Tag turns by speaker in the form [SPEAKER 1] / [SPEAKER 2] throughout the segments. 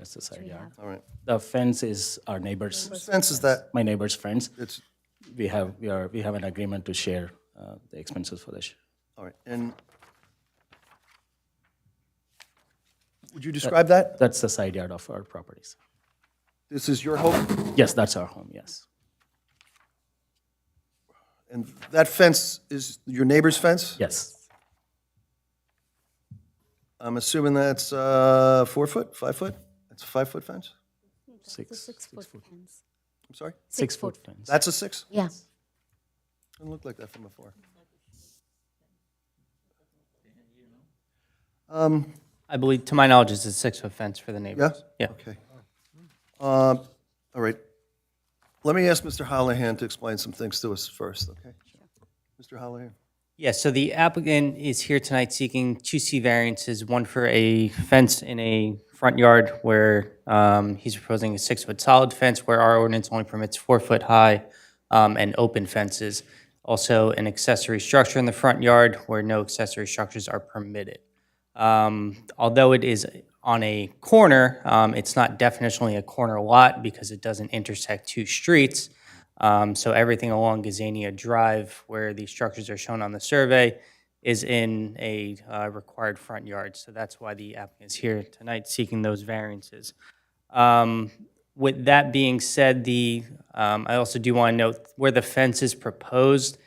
[SPEAKER 1] pesticide, yeah.
[SPEAKER 2] All right.
[SPEAKER 1] The fence is our neighbors,
[SPEAKER 2] Sense is that
[SPEAKER 1] my neighbor's friends.
[SPEAKER 2] it's,
[SPEAKER 1] We have, we are, we have an agreement to share uh, the expenses for this.
[SPEAKER 2] all right, and would you describe that?
[SPEAKER 1] That's the side yard of our properties.
[SPEAKER 2] This is your home?
[SPEAKER 1] Yes, that's our home, yes.
[SPEAKER 2] And that fence is your neighbor's fence?
[SPEAKER 1] Yes,
[SPEAKER 2] I'm assuming that's uh, four foot, five foot? That's a five-foot fence?
[SPEAKER 1] six,
[SPEAKER 3] Six-foot fence.
[SPEAKER 2] I'm sorry?
[SPEAKER 1] six-foot fence.
[SPEAKER 2] That's a six?
[SPEAKER 3] Yeah.
[SPEAKER 2] Doesn't look like that from before.
[SPEAKER 4] I believe, to my knowledge, it's a six-foot fence for the
[SPEAKER 2] Yeah?
[SPEAKER 4] neighbors. Yeah.
[SPEAKER 2] Okay. Um, All right. Let me ask Mr. Hollihan to explain some things to us first, okay? Mr. Hollihan?
[SPEAKER 4] Yeah, so the applicant is here tonight seeking two C variances, one for a fence in a front yard where um, he's proposing a six-foot solid fence where our ordinance only permits four-foot high um, and open fences. Also, an accessory structure in the front yard where no accessory structures are permitted. Um, Although it is on a corner, um, it's not definitionally a corner lot because it doesn't intersect two streets. Um, So everything along Gazania Drive, where the structures are shown on the survey, is in a uh, required front yard. So that's why the applicant is here tonight seeking those variances. Um, With that being said, the, um, I also do want to note where the fence is proposed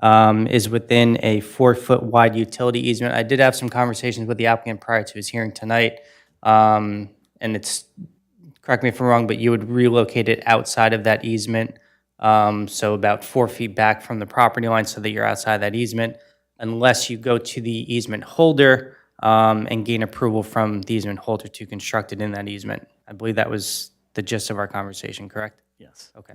[SPEAKER 4] um, is within a four-foot wide utility easement. I did have some conversations with the applicant prior to his hearing tonight, um, and it's, correct me if I'm wrong, but you would relocate it outside of that easement, um, so about four feet back from the property line so that you're outside that easement, unless you go to the easement holder um, and gain approval from the easement holder to construct it in that easement. I believe that was the gist of our conversation, correct?
[SPEAKER 1] Yes.
[SPEAKER 4] Okay.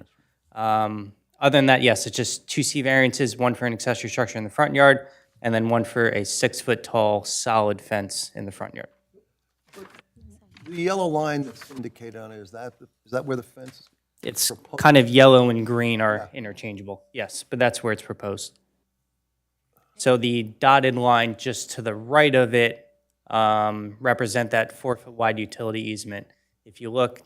[SPEAKER 4] Um, Other than that, yes, it's just two C variances, one for an accessory structure in the front yard, and then one for a six-foot-tall solid fence in the front yard.
[SPEAKER 2] The yellow line that's indicated on it, is that, is that where the fence is?
[SPEAKER 4] It's kind of yellow and green are interchangeable, yes, but that's where it's proposed. So the dotted line just to the right of it um, represent that four-foot-wide utility easement. If you look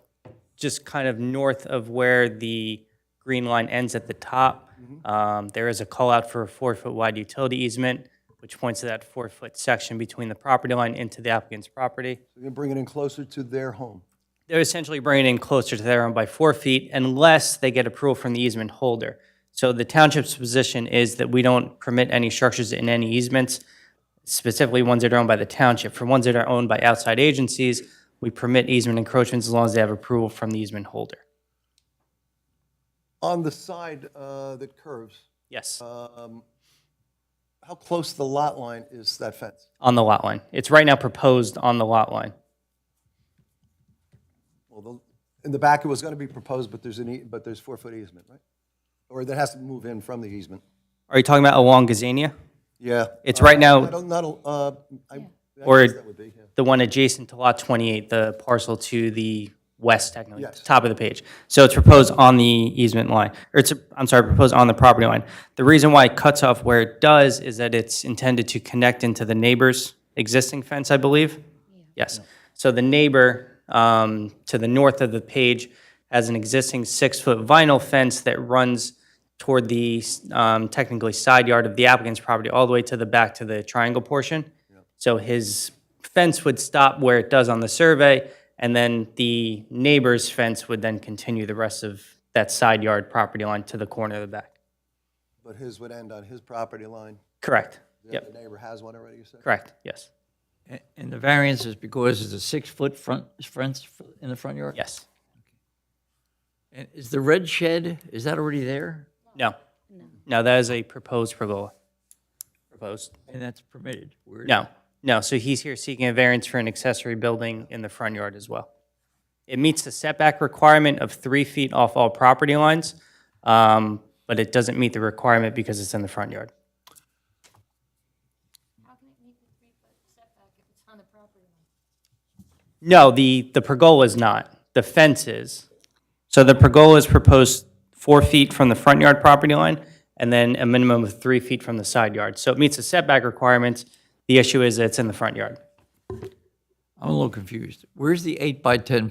[SPEAKER 4] just kind of north of where the green line ends at the top, um, there is a call-out for a four-foot-wide utility easement, which points to that four-foot section between the property line into the applicant's property.
[SPEAKER 2] You're going to bring it in closer to their home?
[SPEAKER 4] They're essentially bringing it in closer to their own by four feet unless they get approval from the easement holder. So the township's position is that we don't permit any structures in any easements, specifically ones that are owned by the township. For ones that are owned by outside agencies, we permit easement encroachments as long as they have approval from the easement holder.
[SPEAKER 2] On the side uh, that curves,
[SPEAKER 4] Yes,
[SPEAKER 2] um, how close to the lot line is that fence?
[SPEAKER 4] on the lot line. It's right now proposed on the lot line.
[SPEAKER 2] Well, the- in the back, it was going to be proposed, but there's an, ea- but there's four-foot easement, right? Or that has to move in from the easement?
[SPEAKER 4] Are you talking about along Gazania?
[SPEAKER 2] Yeah.
[SPEAKER 4] It's right now-
[SPEAKER 2] I don't, not, a- uh, I, I
[SPEAKER 4] Or-
[SPEAKER 2] guess that would be, yeah.
[SPEAKER 4] the one adjacent to Lot 28, the parcel to the west, technically,
[SPEAKER 2] Yes.
[SPEAKER 4] top of the page. So it's proposed on the easement line, or it's, I'm sorry, proposed on the property line. The reason why it cuts off where it does is that it's intended to connect into the neighbor's existing fence, I believe? Yes. So the neighbor um, to the north of the page has an existing six-foot vinyl fence that runs toward the um, technically side yard of the applicant's property, all the way to the back to the triangle portion. So his fence would stop where it does on the survey, and then the neighbor's fence would then continue the rest of that side yard property line to the corner of the back.
[SPEAKER 2] But his would end on his property line.
[SPEAKER 4] Correct.
[SPEAKER 2] The
[SPEAKER 4] Yep,
[SPEAKER 2] other neighbor has one already, you said?
[SPEAKER 4] correct, yes,
[SPEAKER 5] A- And the variance is because it's a six-foot front, fence f- in the front yard?
[SPEAKER 4] yes.
[SPEAKER 5] And is the red shed, is that already there?
[SPEAKER 4] No, no, that is a proposed pergola. Proposed.
[SPEAKER 5] And that's permitted? Weird.
[SPEAKER 4] No, no, so he's here seeking a variance for an accessory building in the front yard as well. It meets the setback requirement of three feet off all property lines, um, but it doesn't meet the requirement because it's in the front yard. No, the, the pergola is not, the fence is. So the pergola is proposed four feet from the front yard property line, and then a minimum of three feet from the side yard. So it meets the setback requirements, the issue is that it's in the front yard.
[SPEAKER 5] I'm a little confused. Where's the eight by 10